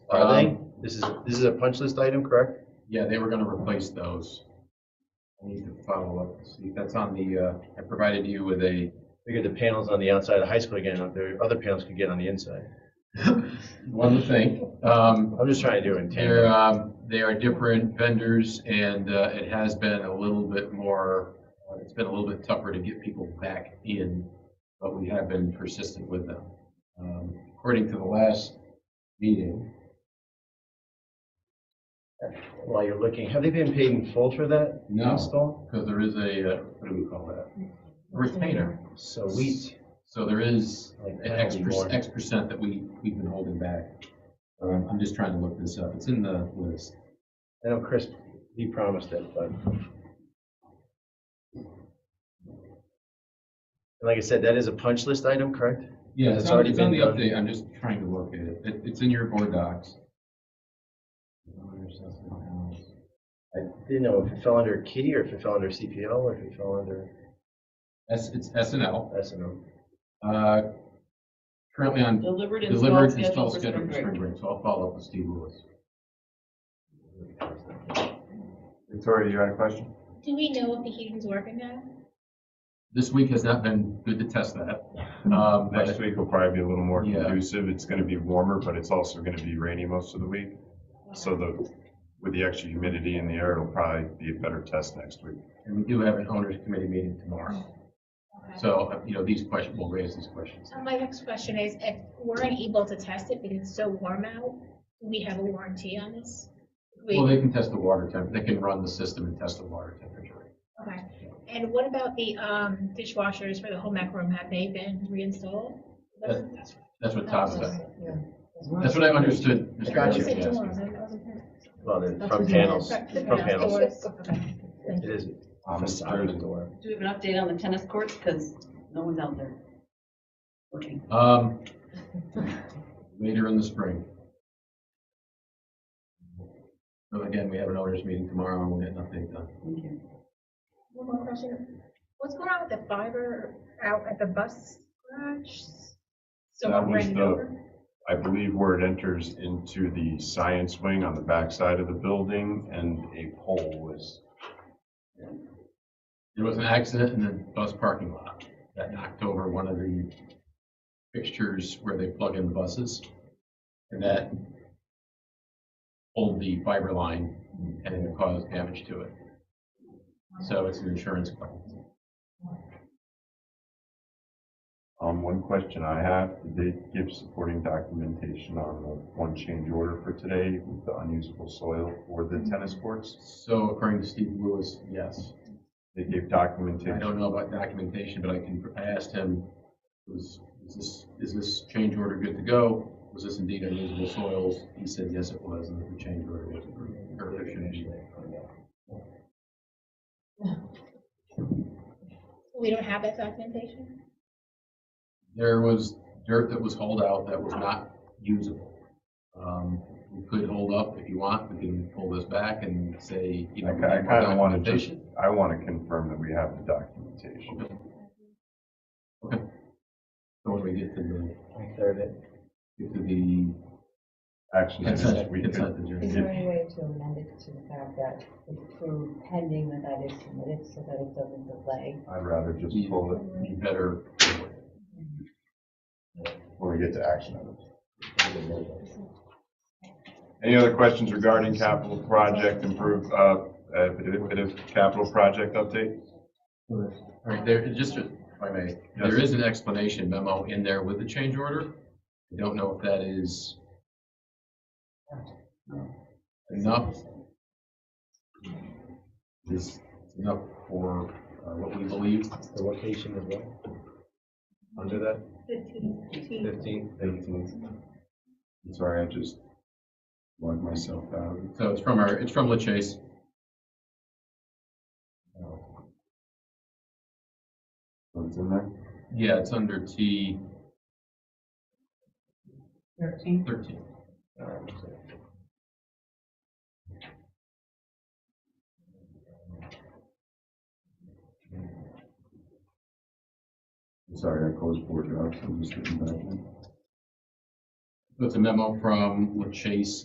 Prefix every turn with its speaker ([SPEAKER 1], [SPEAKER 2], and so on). [SPEAKER 1] Are they?
[SPEAKER 2] Um,
[SPEAKER 1] This is, this is a punch list item, correct?
[SPEAKER 2] Yeah, they were gonna replace those. I need to follow up, see, that's on the, uh, I provided you with a,
[SPEAKER 1] Figure the panels on the outside of the high school again, the other panels could get on the inside.
[SPEAKER 2] one thing. Um,
[SPEAKER 1] I'm just trying to do it in
[SPEAKER 2] They're,
[SPEAKER 1] tandem.
[SPEAKER 2] um, they are different vendors and, uh, it has been a little bit more, uh, it's been a little bit tougher to get people back in, but we have been persistent with them. Um, according to the last meeting,
[SPEAKER 1] While you're looking, have they been paid in full for that
[SPEAKER 2] No.
[SPEAKER 1] install?
[SPEAKER 2] because there is a, uh, what do we call that? A Retainer.
[SPEAKER 1] Sweet.
[SPEAKER 2] So there is
[SPEAKER 1] Like
[SPEAKER 2] an
[SPEAKER 1] penalty
[SPEAKER 2] X, per-
[SPEAKER 1] board.
[SPEAKER 2] X percent that we, we've been holding back. Um, I'm just trying to look this up. It's in the list.
[SPEAKER 1] I know Chris, he promised it, but. And like I said, that is a punch list item, correct?
[SPEAKER 2] Yeah,
[SPEAKER 1] It's
[SPEAKER 2] it's
[SPEAKER 1] already
[SPEAKER 2] already on the
[SPEAKER 1] been done.
[SPEAKER 2] update. I'm just trying to look at it. It, it's in your board docs.
[SPEAKER 1] I didn't know if it fell under kitty or if it fell under CPL or if it fell under
[SPEAKER 2] S, it's S and L.
[SPEAKER 1] S and O.
[SPEAKER 2] Uh, currently on
[SPEAKER 3] Delivered, installed,
[SPEAKER 2] delivered,
[SPEAKER 3] scheduled
[SPEAKER 2] installed,
[SPEAKER 3] for
[SPEAKER 2] scheduled for
[SPEAKER 3] spring
[SPEAKER 2] spring
[SPEAKER 3] break.
[SPEAKER 2] break. So I'll follow up with Steve Lewis.
[SPEAKER 4] Victoria, you had a question?
[SPEAKER 5] Do we know if the heating's working now?
[SPEAKER 2] This week has not been good to test that. Um, but
[SPEAKER 4] Next week will probably be a little more
[SPEAKER 2] Yeah.
[SPEAKER 4] conducive. It's gonna be warmer, but it's also gonna be rainy most of the week. So the, with the extra humidity in the air, it'll probably be a better test next week.
[SPEAKER 2] and we do have an owners committee meeting
[SPEAKER 3] Oh,
[SPEAKER 2] tomorrow.
[SPEAKER 5] Okay.
[SPEAKER 2] So, uh, you know, these questions, we'll raise these questions.
[SPEAKER 5] So my next question is, if we're unable to test it because it's so warm out, do we have a warranty on this? We-
[SPEAKER 2] Well, they can test the water temp, they can run the system and test the water temperature.
[SPEAKER 5] Okay, and what about the, um, dishwashers for the home ec room, have they been reinstalled?
[SPEAKER 2] That's-
[SPEAKER 5] That's-
[SPEAKER 2] That's what Tom said.
[SPEAKER 6] Yeah.
[SPEAKER 2] That's what I understood. Mr.
[SPEAKER 1] Gotcha.
[SPEAKER 2] Lewis
[SPEAKER 5] You said
[SPEAKER 2] was asking.
[SPEAKER 5] doors, I wasn't sure.
[SPEAKER 1] Well, the
[SPEAKER 6] That's
[SPEAKER 1] front
[SPEAKER 6] what it is.
[SPEAKER 1] panels,
[SPEAKER 5] Front-
[SPEAKER 1] front panels.
[SPEAKER 5] doors. Okay.
[SPEAKER 1] It is
[SPEAKER 4] Office
[SPEAKER 1] facade of the
[SPEAKER 4] door.
[SPEAKER 1] door.
[SPEAKER 3] Do we have an update on the tennis courts? Because no one's out there working.
[SPEAKER 2] Um, later in the spring. So again, we have an owners meeting tomorrow and we'll get an update done.
[SPEAKER 3] Thank you.
[SPEAKER 5] One more question, what's going on with the fiber out at the bus garage?
[SPEAKER 4] That
[SPEAKER 5] Someone
[SPEAKER 4] was
[SPEAKER 5] ran it
[SPEAKER 4] the-
[SPEAKER 5] over?
[SPEAKER 4] I believe where it enters into the science wing on the backside of the building and a pole was
[SPEAKER 2] There was an accident in the bus parking lot that knocked over one of the fixtures where they plug in the buses. And that pulled the fiber line and it caused damage to it. So it's an insurance claim.
[SPEAKER 4] Um, one question I have, did they give supporting documentation on the one change order for today with the unusable soil for the tennis courts?
[SPEAKER 2] So according to Steve Lewis, yes.
[SPEAKER 4] They gave
[SPEAKER 2] I
[SPEAKER 4] documentation.
[SPEAKER 2] don't know about documentation, but I can, I asked him, was, is this, is this change order good to go? Was this indeed unusable soils? He said, yes, it was, and that the change order was approved. Or it should be.
[SPEAKER 5] We don't have that documentation?
[SPEAKER 2] There was dirt that was hauled out that was not usable. Um, we could hold up if you want, we can pull this back and say, you know.
[SPEAKER 4] I ki- I kinda wanna just,
[SPEAKER 2] documentation.
[SPEAKER 4] I wanna confirm that we have the documentation.
[SPEAKER 2] So when we get to the,
[SPEAKER 1] I cleared it.
[SPEAKER 2] get to the
[SPEAKER 4] Actually,
[SPEAKER 2] consent,
[SPEAKER 4] we could,
[SPEAKER 2] consent agenda.
[SPEAKER 6] Is there any way to amend it to the fact that it's approved pending that that is submitted so that it doesn't delay?
[SPEAKER 4] I'd rather just pull it
[SPEAKER 2] be better.
[SPEAKER 4] when we get to action items. Any other questions regarding capital project improve, uh, uh, bit of capital project update?
[SPEAKER 2] All right, there, just if I may, there is an explanation memo in there with the change order. I don't know if that is enough. Is enough for uh, what we believe.
[SPEAKER 1] The location as well. Under that
[SPEAKER 5] Fifteen, fifteen.
[SPEAKER 1] fifteen,
[SPEAKER 4] I'm Sorry, I just logged myself out.
[SPEAKER 2] uh, So it's from our, it's from La Chase.
[SPEAKER 4] uh, What's in there?
[SPEAKER 2] Yeah, it's under T
[SPEAKER 3] Thirteen.
[SPEAKER 2] thirteen.
[SPEAKER 4] I'm Sorry, I closed board docs, I'm just getting back in.
[SPEAKER 2] So It's a memo from La Chase